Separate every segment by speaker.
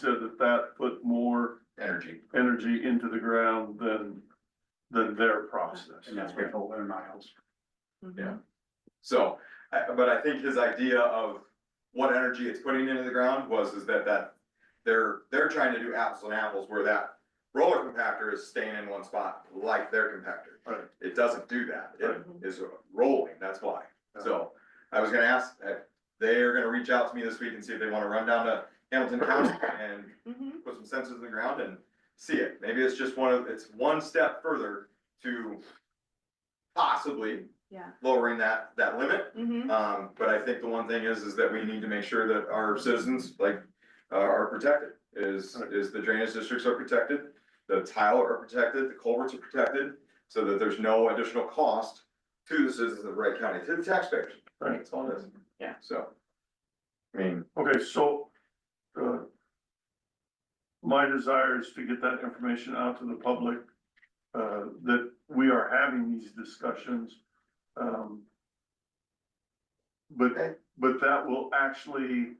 Speaker 1: that that put more
Speaker 2: energy,
Speaker 1: energy into the ground than, than their process.
Speaker 3: And that's what they'll learn miles.
Speaker 2: so, I- but I think his idea of what energy it's putting into the ground was, is that that. They're, they're trying to do apples and apples where that roller compactor is staying in one spot like their compactor.
Speaker 1: Right.
Speaker 2: It doesn't do that, it
Speaker 4: Right.
Speaker 2: is rolling, that's why, so, I was gonna ask, uh, they are gonna reach out to me this week and see if they wanna run down to Hamilton County and
Speaker 4: Mhm.
Speaker 2: put some sensors in the ground and see it. Maybe it's just one of, it's one step further to possibly
Speaker 4: Yeah.
Speaker 2: lowering that, that limit.
Speaker 4: Mhm.
Speaker 2: Um, but I think the one thing is, is that we need to make sure that our citizens, like, uh, are protected, is, is the drainage districts are protected. The tile are protected, the culverts are protected, so that there's no additional cost to the citizens of Wright County, to the taxpayers.
Speaker 1: Right.
Speaker 2: That's all it is.
Speaker 4: Yeah.
Speaker 2: So. I mean,
Speaker 1: Okay, so, uh, my desire is to get that information out to the public, uh, that we are having these discussions. Um, but,
Speaker 2: Okay.
Speaker 1: but that will actually,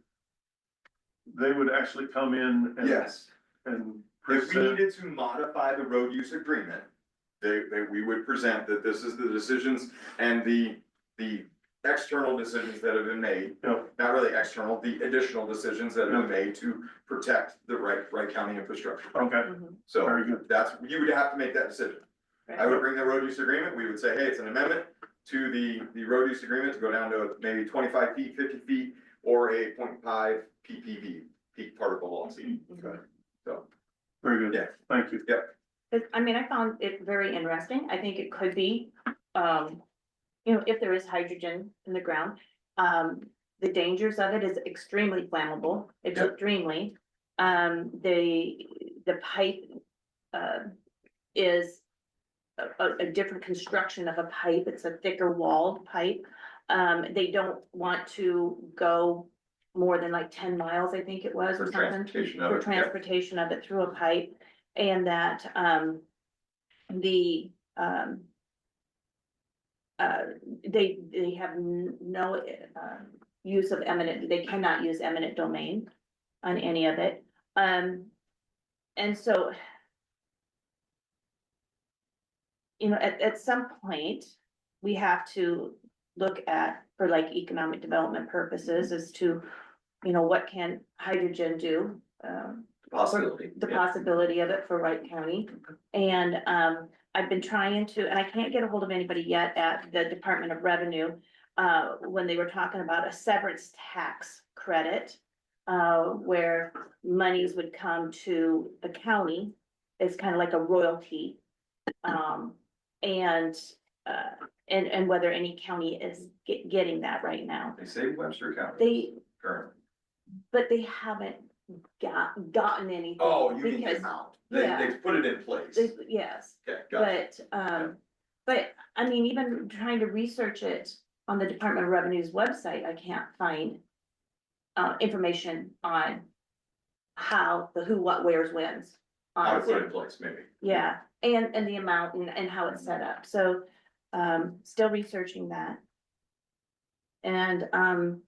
Speaker 1: they would actually come in and,
Speaker 2: yes.
Speaker 1: and
Speaker 2: If we
Speaker 1: present,
Speaker 2: needed to modify the road use agreement, they, they, we would present that this is the decisions and the, the external decisions that have been made,
Speaker 1: you know,
Speaker 2: not really external, the additional decisions that have been made to protect the Wright, Wright County infrastructure.
Speaker 1: okay,
Speaker 4: Mhm.
Speaker 2: So
Speaker 1: very good,
Speaker 2: that's, you would have to make that decision. I would bring the road use agreement, we would say, hey, it's an amendment to the, the road use agreement to go down to maybe twenty-five feet, fifty feet, or a 0.5 PPV, peak particle velocity.
Speaker 4: Mhm.
Speaker 1: very
Speaker 2: Yeah.
Speaker 1: good, thank you.
Speaker 4: It- I mean, I found it very interesting. I think it could be, um, you know, if there is hydrogen in the ground. Um, the dangers of it is extremely flammable, it's
Speaker 2: Yeah.
Speaker 4: extremely. Um, the, the pipe, uh, is a, a- a different construction of a pipe. It's a thicker walled pipe. Um, they don't want to go more than like ten miles, I think it was, or
Speaker 2: For
Speaker 4: something
Speaker 2: transportation of
Speaker 4: for
Speaker 2: it, yeah.
Speaker 4: transportation of it through a pipe and that, um, the, um, uh, they, they have n- no, uh, use of eminent, they cannot use eminent domain on any of it. Um, and so you know, at, at some point, we have to look at, for like economic development purposes, as to, you know, what can hydrogen do? Um,
Speaker 2: Possibility.
Speaker 4: the
Speaker 2: yeah.
Speaker 4: possibility of it for Wright County. And um, I've been trying to, and I can't get a hold of anybody yet at the Department of Revenue. Uh, when they were talking about a severance tax credit. Uh, where monies would come to the county. It's kind of like a royalty. Um, and uh, and and whether any county is ge- getting that right now.
Speaker 2: They say Webster County
Speaker 4: They,
Speaker 2: currently.
Speaker 4: but they haven't got gotten anything.
Speaker 2: Oh, you mean the
Speaker 4: because-
Speaker 2: amount? They,
Speaker 4: yeah.
Speaker 2: they've put it in place.
Speaker 4: They- Yes.
Speaker 2: Okay, got it.
Speaker 4: But, um, but, I mean, even trying to research it on the Department of Revenue's website, I can't find. Uh, information on how, the who, what, where's, when's.
Speaker 2: How to
Speaker 4: on
Speaker 2: put it
Speaker 4: it.
Speaker 2: in place, maybe.
Speaker 4: Yeah, and, and the amount and, and how it's set up, so, um, still researching that. And, um,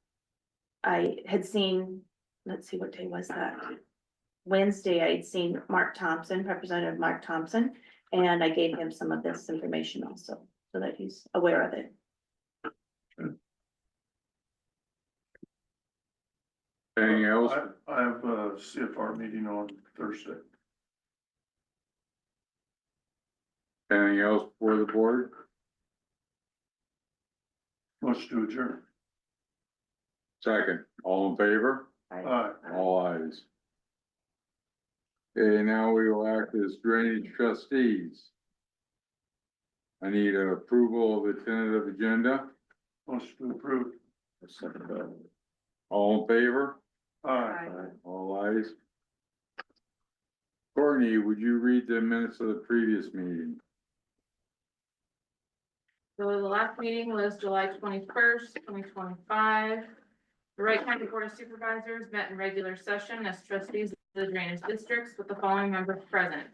Speaker 4: I had seen, let's see, what day was that? Wednesday, I had seen Mark Thompson, Representative Mark Thompson, and I gave him some of this information also, so that he's aware of it.
Speaker 5: Anything else?
Speaker 1: I, I have a CFR meeting on Thursday.
Speaker 5: Anything else for the board?
Speaker 1: Let's do adjourn.
Speaker 5: Second, all in favor?
Speaker 1: All right.
Speaker 5: All ayes. Okay, now we will act as drainage trustees. I need approval of the tentative agenda.
Speaker 1: Let's approve.
Speaker 5: All in favor?
Speaker 1: Aye.
Speaker 5: All ayes. Courtney, would you read the minutes of the previous meeting?
Speaker 6: So the last meeting was July twenty-first, twenty twenty-five. The Wright County Board of Supervisors met in regular session as trustees of the drainage districts with the following members present.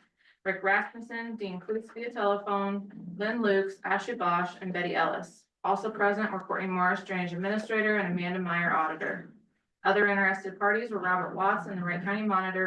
Speaker 6: Rick Rasmussen, Dean Klutz via telephone, Lynn Lukes, Ashley Bosch, and Betty Ellis. Also present were Courtney Morris, Drainage Administrator, and Amanda Meyer Auditor. Other interested parties were Robert Watts and the Wright County Monitor,